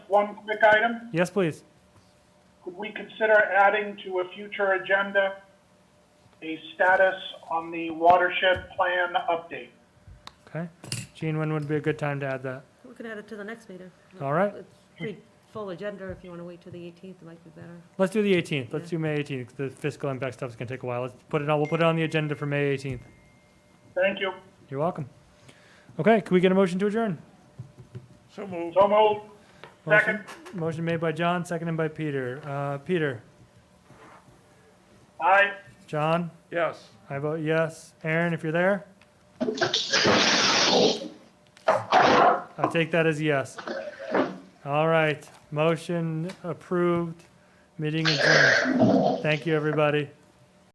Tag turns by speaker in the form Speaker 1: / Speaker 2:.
Speaker 1: one quick item?
Speaker 2: Yes, please.
Speaker 1: Could we consider adding to a future agenda a status on the watershed plan update?
Speaker 2: Okay. Gene, when would be a good time to add that?
Speaker 3: We can add it to the next meeting.
Speaker 2: All right.
Speaker 3: It's pretty full agenda, if you want to wait till the 18th, it might be better.
Speaker 2: Let's do the 18th. Let's
Speaker 3: Yeah.
Speaker 2: do May 18th. 'cause The fiscal impact stuff's gonna take a while. Let's put it on, we'll put it on the agenda for May 18th.
Speaker 1: Thank you.
Speaker 2: You're welcome. Okay, can we get a motion to adjourn?
Speaker 4: So moved.
Speaker 1: So moved.
Speaker 2: Motion-
Speaker 1: Second.
Speaker 2: Motion made by John, seconded by Peter. Uh, Peter,
Speaker 1: Aye.
Speaker 2: John,
Speaker 4: Yes.
Speaker 2: I vote yes. Aaron, if you're there? I take that as yes. All right, motion approved, meeting adjourned. Thank you, everybody.